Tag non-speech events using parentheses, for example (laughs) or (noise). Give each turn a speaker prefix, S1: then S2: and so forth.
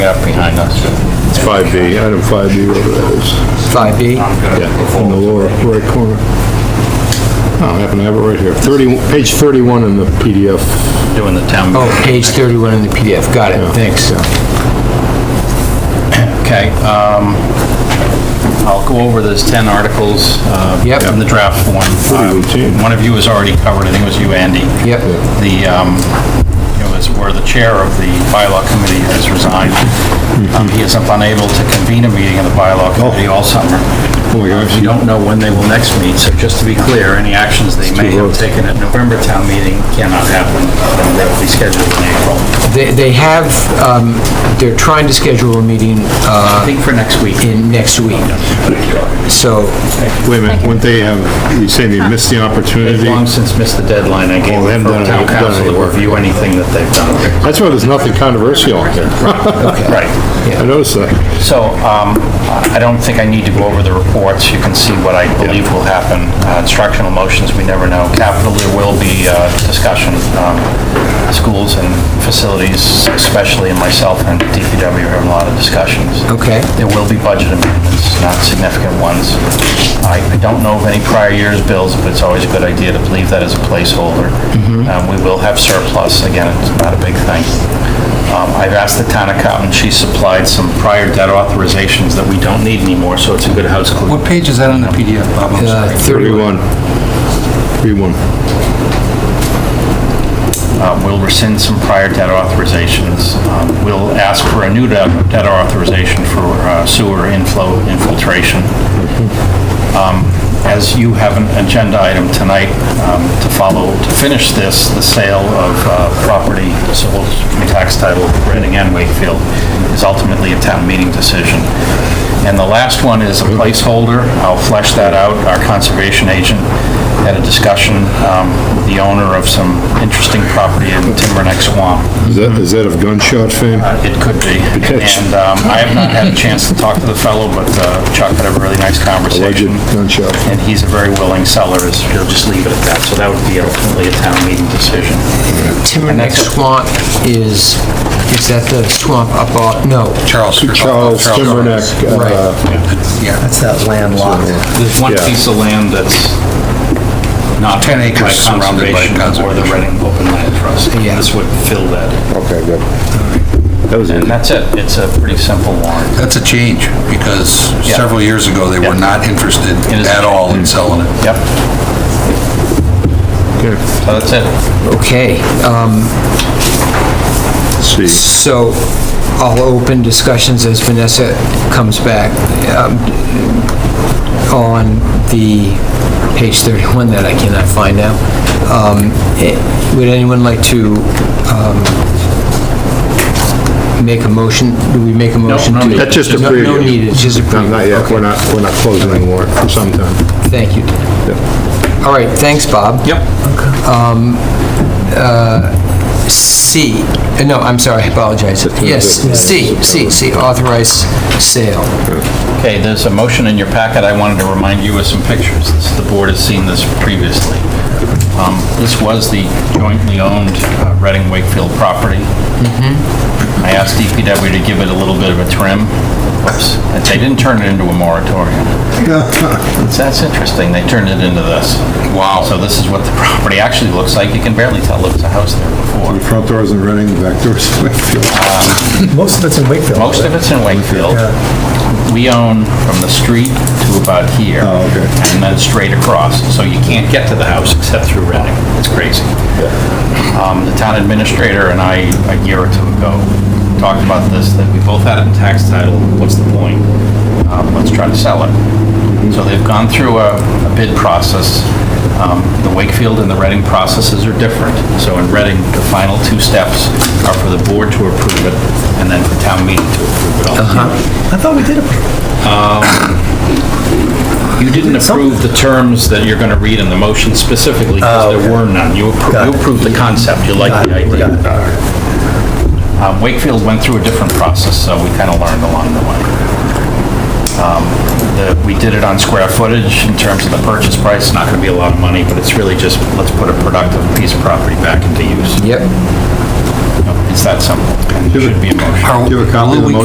S1: up behind us.
S2: It's 5B, item 5B, whatever that is.
S3: 5B?
S2: Yeah, in the lower right corner. Oh, I happen to have it right here. 30, page 31 in the PDF.
S1: Doing the town.
S3: Oh, page 31 in the PDF, got it, thanks.
S1: Okay, um, I'll go over those 10 articles, uh,
S3: Yep.
S1: in the draft form.
S2: Pretty routine.
S1: Um, One of you has already covered, I think it was you, Andy.
S3: Yep.
S1: The, um, it was where the chair of the bylaw committee has resigned. Um, He is unable to convene a meeting of the bylaw committee all summer.
S2: Oh my gosh.
S1: We don't know when they will next meet, so just to be clear, any actions they may have
S2: roads.
S1: taken at November town meeting cannot happen, and they will be scheduled in April.
S3: They they have, um, they're trying to schedule a meeting
S1: I
S3: uh,
S1: think for next week.
S3: in next week, so,
S2: Wait a minute, wouldn't they have, you say they missed the opportunity?
S1: They've long since missed the deadline I gave
S2: Oh, they
S1: them
S2: haven't
S1: for
S2: done
S1: town
S2: any- done
S1: council
S2: any
S1: to
S2: work.
S1: review anything that they've done.
S2: That's why there's nothing controversial out there.
S1: Right.
S2: (laughs) I noticed that.
S1: So um, I don't think I need to go over the reports. You can see what I believe will happen. Uh, Instructional motions, we never know. Capital, there will be uh, discussion. Um, Schools and facilities, especially in myself and DPW, have a lot of discussions.
S3: okay.
S1: There will be budget amendments, not significant ones. I I don't know of any prior year's bills, but it's always a good idea to leave that as a placeholder. Um, We will have surplus, again, it's not a big thing. Um, I've asked the town accountant, she supplied some prior debt authorizations that we don't need anymore, so it's a good house clean.
S4: What page is that on the PDF, Bob? I'm
S3: Uh,
S4: sorry.
S2: 31. 31.
S1: Um, We'll rescind some prior debt authorizations. Um, We'll ask for a new debt debt authorization for uh, sewer inflow infiltration. Um, As you have an agenda item tonight um, to follow, to finish this, the sale of uh, property, civil tax title, Reading and Wakefield, is ultimately a town meeting decision. And the last one is a placeholder. I'll flesh that out. Our conservation agent had a discussion um, with the owner of some interesting property in Timberneck Swamp.
S2: Is that, is that of gunshot fame?
S1: Uh, It could be.
S2: Yes.
S1: And um, I have not had a chance to talk to the fellow, but uh, Chuck had a really nice
S2: Alleged
S1: conversation.
S2: gunshot.
S1: And he's a very willing seller, is- he'll just leave it at that. So that would be ultimately a town meeting decision.
S3: Timberneck Swamp is, is that the swamp up off, no,
S4: Charles.
S2: Charles Timberneck. uh,
S3: right,
S4: Yeah, that's that landlocked.
S1: There's one
S2: Yeah.
S1: piece of land that's not
S4: 10
S1: by
S4: acres surrounded by
S1: conservation Or the Reading
S4: conservation.
S1: Open Land Trust.
S3: Yeah.
S1: This would fill that.
S2: Okay, good. That was it.
S1: And that's it. It's a pretty simple warrant.
S4: That's a change, because
S1: Yeah.
S4: several years ago, they were
S1: Yeah.
S4: not interested
S1: It is-
S4: at all in selling it.
S1: Yep,
S2: Okay.
S1: so that's it.
S3: okay. um,
S2: Let's see.
S3: So I'll open discussions as Vanessa comes back um, on the page 31 that I cannot find now. Um, eh, Would anyone like to um, make a motion? Do we make a motion?
S1: no
S3: to-
S1: need.
S2: That's just a
S3: No-
S2: preview.
S3: No need, it's just a
S2: No,
S3: preview.
S2: Not yet, we're not, we're not closing the warrant for some time.
S3: Okay, Thank you. All right, thanks, Bob.
S1: Yep.
S3: C, eh, no, I'm sorry, I apologize. Yes, C, C, C, authorized sale.
S1: Okay, there's a motion in your packet. I wanted to remind you of some pictures. This- The board has seen this previously. Um, This was the jointly owned uh, Reading Wakefield property. I asked DPW to give it a little bit of a trim. Whoops. And They didn't turn it into a moratorium. That's interesting. They turned it into this. Wow. So this is what the (laughs) property actually looks like. You can barely tell there was a house there before.
S2: Front doors and running, back doors in Wakefield.
S5: Most of it's in Wakefield.
S1: Most of it's in Wakefield. We own from the street to about here.
S2: Oh, okay.
S1: And then straight across, so you can't get to the house except through Reading. It's crazy. Um, The town administrator and I, a year or two ago, talked about this, that we both had it in tax title, what's the point? Um, Let's try to sell it. So they've gone through a a bid process. Um, The Wakefield and the Reading processes are different. So in Reading, the final two steps are for the board to approve it and then for town meeting to approve it. ultimately.
S5: I thought we did approve.
S1: You didn't approve the terms that you're going to read in the motion specifically because there were none. You appro-
S5: Oh, Got
S1: you
S5: it.
S1: approved the concept, you liked the idea. Um, Wakefield went through a different process, so we kind of learned along the way. Um, the- We did it on square footage in terms of the purchase price, not going to be a lot of money, but it's really just, let's put a productive piece of property back into use.
S3: Yep.
S6: It's that simple. and It should be a motion.
S2: Are-
S1: Do you have a copy of the
S2: will we
S1: motion?